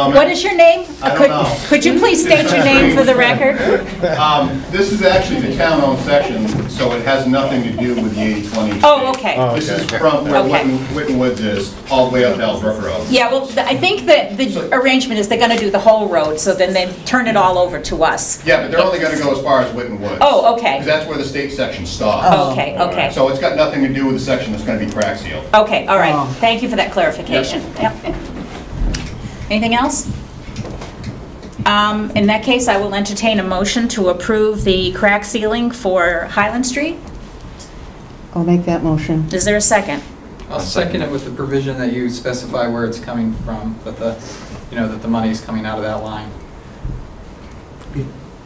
Um, What is your name? I don't Could- know. Could you please state your name for the record? Um, This is actually the town-owned section, so it has nothing to do with the 80/20. Oh, okay. This is from where Okay. Witten Witten Woods is, all the way up to Ellsworth Road. Yeah, well, th- I think that the arrangement is they're going to do the whole road, so then they turn it all over to us. Yeah, but they're only going to go as far as Witten Woods. Oh, okay. Oh. Because that's where the state section stops. Okay, okay. So it's got nothing to do with the section that's going to be crack sealed. Okay, all Um, right. Thank you for that clarification. Yep. Anything else? Um, In that case, I will entertain a motion to approve the crack ceiling for Highland Street. I'll make that motion. Is there a second? I'll second it with the provision that you specify where it's coming from, but the, you know, that the money is coming out of that line.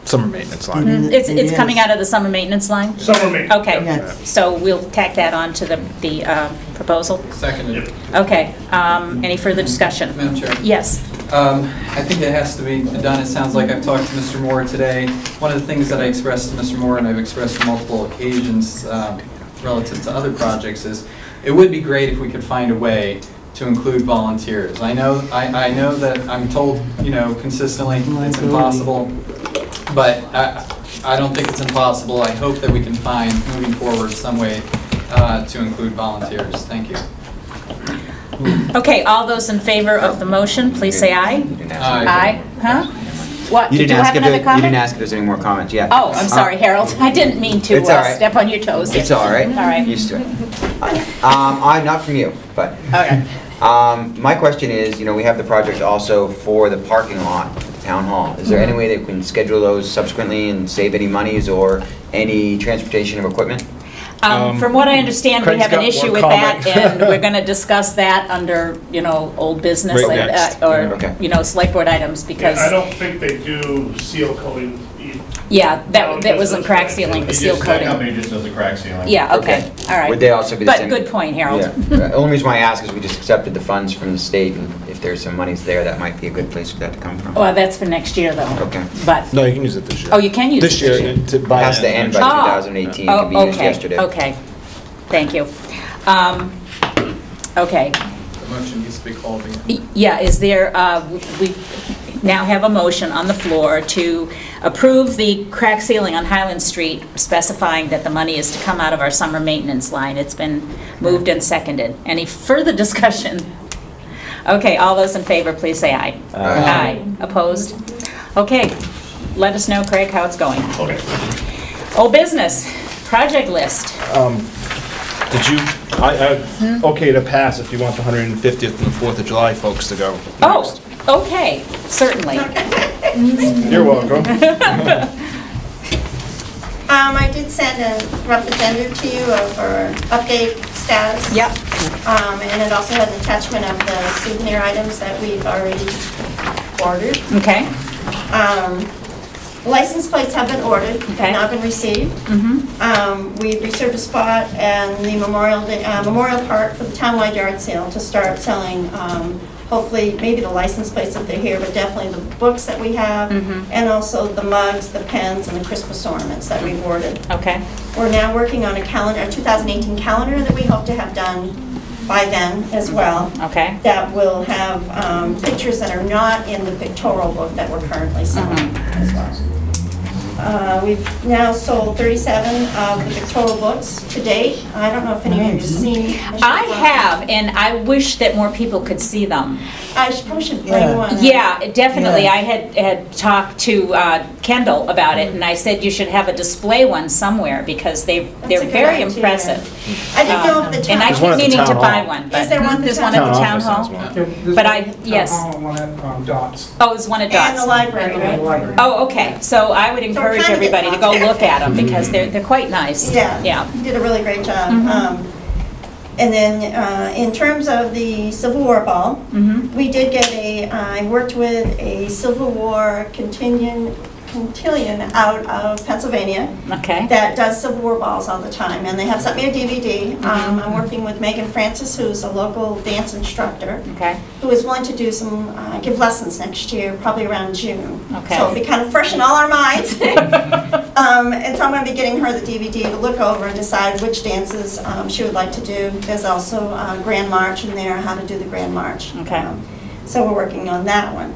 Summer maintenance line. It's, it's coming out of the summer maintenance line? Summer meeting. Okay, Yes. so we'll tack that on to the, the uh, proposal. Seconded. Okay, um, any further discussion? Madam Chair? Yes, Um, I think it has to be done. It sounds like I've talked to Mr. Moore today. One of the things that I expressed to Mr. Moore, and I've expressed on multiple occasions um, relative to other projects, is it would be great if we could find a way to include volunteers. I know, I, I know that I'm told, you know, consistently, it's impossible, but I, I don't think it's impossible. I hope that we can find, moving forward, some way uh, to include volunteers. Thank you. okay, all those in favor of the motion, please say aye. Uh, Aye, huh? What, You did you didn't have ask if, there- another you comment? didn't ask if there's any more comments, yeah. Oh, I'm sorry, Harold, I didn't mean to It's all uh, right. step on your toes. It's all right. All right, Used to it. Um, I, not from you, but, all right. um, my question is, you know, we have the project also for the parking lot, at the town hall. Is there Mm-hmm. any way that we can schedule those subsequently and save any monies or any transportation of equipment? Um, From what I understand, we Craig's have an got issue one with that, comment. and we're going to discuss that under, you know, old business Right and, next. uh, Okay. or, you know, select board items, because, I don't think they do seal coating. yeah, that Old that wasn't business. crack sealing, He the just- seal That coating. company just does the crack sealing. Yeah, okay, all right. Would they also be the But same? good point, Harold. Yeah. Uh, Only reason why I ask is we just accepted the funds from the state, and if there's some monies there, that might be a good place for that to come from. Well, that's for next year, though. Okay. But, No, you can use it this year. oh, you can use it. This year, to buy. Has to end by Oh. 2018, it Oh, can be used okay, yesterday. Okay, thank you. Um, Okay, The motion needs to be called again. Y- yeah, is there, uh, we now have a motion on the floor to approve the crack ceiling on Highland Street specifying that the money is to come out of our summer maintenance line. It's been moved and seconded. Any further discussion? Okay, all those in favor, please say aye. Aye. Opposed? Okay, let us know, Craig, how it's going. Okay. Old business, project list. Did you, I, I, okay to pass if you want the 150th and the 4th of July folks to go. Oh, okay, certainly. You're welcome. Um, I did send a rough agenda to you over update status. Yep. Um, and it also had an attachment of the souvenir items that we've already ordered. Okay, Um, license plates have been ordered, Okay. have not been received. mm-hmm, Um, we reserved a spot and the Memorial, Day- uh, Memorial Park for the townwide yard sale to start selling, um, hopefully, maybe the license plates if they're here, but definitely the books that we have, Mm-hmm. and also the mugs, the pens, and the Christmas ornaments that we've ordered. okay, We're now working on a calendar, a 2018 calendar that we hope to have done by then as well, okay. that will have um, pictures that are not in the pictorial book that we're currently selling Mm-hmm. as well. Uh, We've now sold 37 of the pictorial books to date. I don't know if any of you have seen. should Mm-hmm. I go- have, and I wish that more people could see them. I should- probably should Yeah. bring one. Yeah, definitely. Yeah. I had, had talked to uh, Kendall about it, and I said you should have a display one somewhere because they, a they're good very idea. impressive. I didn't know Um, if the And I There's town, one keep at the meaning to town buy hall. one, Is there but one at there's the one at town the town office hall. has one. But I- yes. One at um, Dots. Oh, it's one at and the Dot's. library, right? Library. Oh, okay. So I would we're encourage trying to get everybody to go out there. look at them Mm-hmm. because they're, they're quite nice. Yeah. Yeah. Mm-hmm. You did a really great job. Um, And then, uh, in terms of the Civil War Ball, Mm-hmm. we did get a, I worked with a Civil War contingent, contillion out of Pennsylvania Okay. that does Civil War balls all the time, and they have sent me a DVD. Mm-hmm. Um, I'm working with Megan Francis, who's a local dance instructor, Okay. who is willing to do some, uh, give lessons next year, probably around June. Okay. So it'll be kind of fresh in all our minds. Um, And so I'm going to be getting her the DVD to look over and decide which dances um, she would like to do. There's also uh, Grand March in there, how to do the Grand March. Okay. Um, So we're working on that one.